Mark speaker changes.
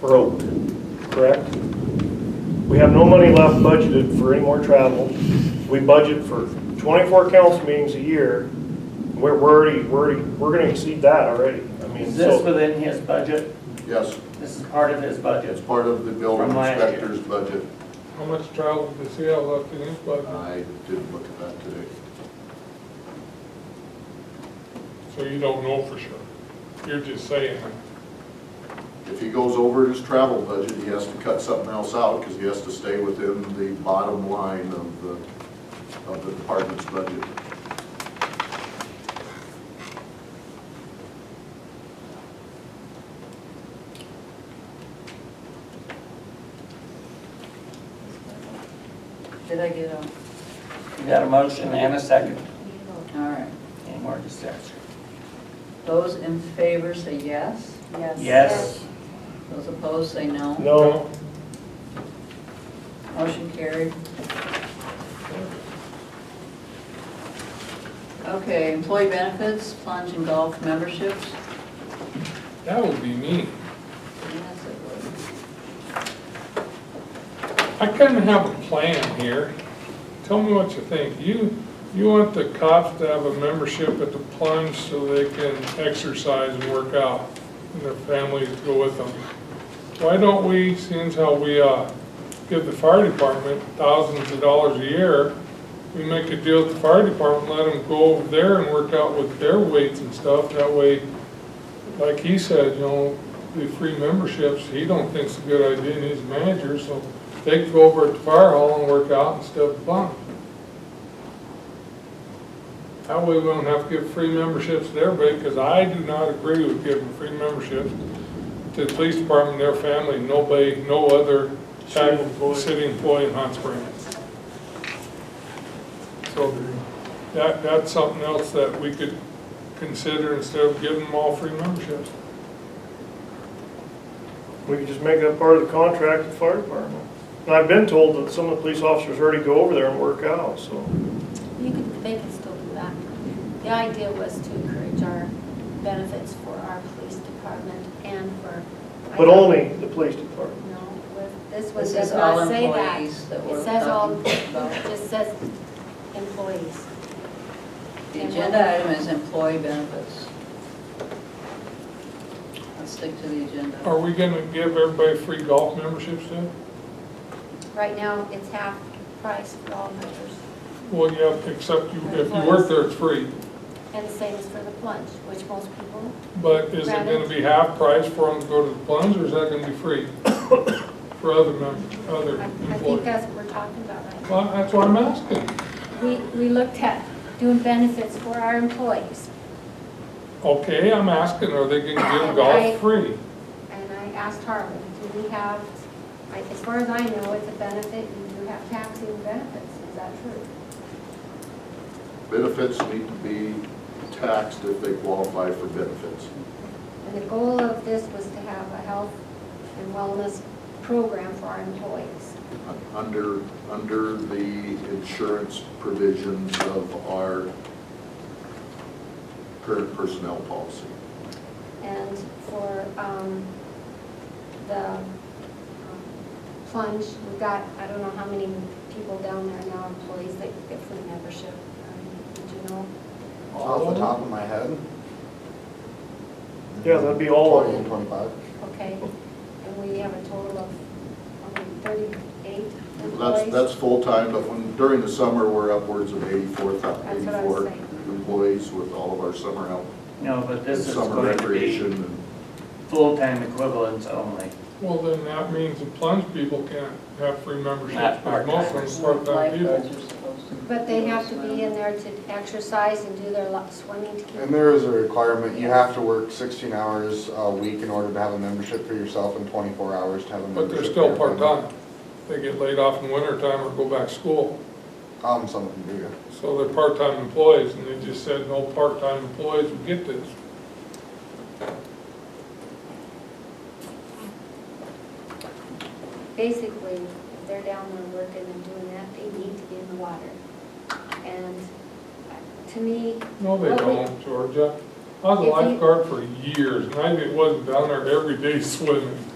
Speaker 1: broke, correct? We have no money left budgeted for any more travel. We budget for 24 council meetings a year. We're we're already, we're already, we're going to exceed that already. I mean,
Speaker 2: Is this
Speaker 1: so,
Speaker 2: within his budget?
Speaker 3: Yes,
Speaker 2: This is part of his
Speaker 3: it's
Speaker 2: budget.
Speaker 3: part of the building
Speaker 2: From last year.
Speaker 3: inspector's budget.
Speaker 4: How much travel does he have left in his budget?
Speaker 3: I didn't look at that today.
Speaker 4: So you don't know for sure. You're just saying that.
Speaker 3: If he goes over his travel budget, he has to cut something else out because he has to stay within the bottom line of the, of the department's budget.
Speaker 5: Did I get on?
Speaker 2: You got a motion and a second.
Speaker 5: All right.
Speaker 2: Any more discussion?
Speaker 5: Those in favor say yes.
Speaker 2: Yes.
Speaker 5: Those opposed say no.
Speaker 1: no,
Speaker 5: Motion carried. Okay, employee benefits, plunge and golf memberships.
Speaker 4: That would be me.
Speaker 5: Yes, it would.
Speaker 4: I kind of have a plan here. Tell me what you think. You, you want the cops to have a membership at the plunge so they can exercise and work out, and their families go with them. Why don't we, seeing as how we, uh, give the fire department thousands of dollars a year, we make a deal with the fire department, let them go over there and work out with their weights and stuff, that way, like he said, you know, the free memberships, he don't think's a good idea, and he's a manager, so they could go over at the fire hall and work out instead of bunk. That way we don't have to give free memberships to everybody, because I do not agree with giving free memberships to the police department, their family, nobody, no other type of city employee in Hot Springs. So that, that's something else that we could consider instead of giving them all free memberships.
Speaker 1: we could just make that part of the contract with the fire department. And I've been told that some of the police officers already go over there and work out, so.
Speaker 6: You could, they could still do that. The idea was to encourage our benefits for our police department and for.
Speaker 1: But only the police department.
Speaker 6: No, with- this one
Speaker 5: This
Speaker 6: does
Speaker 5: is all
Speaker 6: not say that.
Speaker 5: employees that we're
Speaker 6: It says all,
Speaker 5: talking
Speaker 6: it
Speaker 5: about.
Speaker 6: just says employees.
Speaker 5: The agenda item is employee benefits. Let's stick to the agenda.
Speaker 4: Are we gonna give everybody free golf memberships then?
Speaker 6: Right now, it's half price for all members.
Speaker 4: Well, yeah, except you, if you work there, it's free.
Speaker 6: And the same is for the plunge, which most people,
Speaker 4: But is it gonna be half price for them to go to the plunge, or is that gonna be free for other members, other
Speaker 6: I I think
Speaker 4: employees?
Speaker 6: that's what we're talking about right now.
Speaker 4: Well, that's what I'm asking.
Speaker 6: We, we looked at doing benefits for our employees.
Speaker 4: Okay, I'm asking, are they gonna give
Speaker 6: I-
Speaker 4: golf free?
Speaker 6: And I asked Harvey, do we have, I- as far as I know, it's a benefit, you do have taxing benefits, is that true?
Speaker 3: Benefits need to be taxed if they qualify for benefits.
Speaker 6: And the goal of this was to have a health and wellness program for our employees.
Speaker 3: under, under the insurance provisions of our current personnel policy.
Speaker 6: And for um, the um, plunge, we've got, I don't know how many people down there now, employees that get free membership. Um, Did you know?
Speaker 7: Off the top of my head?
Speaker 1: Yeah, that'd be all of
Speaker 7: Twenty
Speaker 1: them.
Speaker 7: and twenty-five.
Speaker 6: Okay. And we have a total of um, 38 employees.
Speaker 3: That's, that's full-time, but when, during the summer, we're upwards of 84,
Speaker 6: That's what I was
Speaker 3: 84
Speaker 6: saying.
Speaker 3: employees with all of our summer help.
Speaker 2: No, but this is
Speaker 3: Summer
Speaker 2: going to
Speaker 3: recreation
Speaker 2: be
Speaker 3: and
Speaker 2: full-time equivalents only.
Speaker 4: Well, then that means the plunge people can't have free memberships,
Speaker 2: Not
Speaker 4: but most of them are part-time
Speaker 5: Lifeguards
Speaker 4: people.
Speaker 5: are supposed to.
Speaker 6: But they have to be in there to exercise and do their lo- swimming to keep.
Speaker 7: And there is a requirement, you have to work sixteen hours a week in order to have a membership for yourself and twenty-four hours to have a membership.
Speaker 4: But they're
Speaker 7: for
Speaker 4: still
Speaker 7: your family.
Speaker 4: part-time. They get laid off in winter time or go back to school.
Speaker 7: Um, some of them do, yeah.
Speaker 4: So they're part-time employees, and they just said, no part-time employees would get this.
Speaker 6: Basically, if they're down there working and doing that, they need to be in the water. And uh, to me,
Speaker 4: No, they
Speaker 6: Well, we-
Speaker 4: don't, Georgia. I was a
Speaker 6: If you-
Speaker 4: lifeguard for years, and I wasn't down there every day swimming.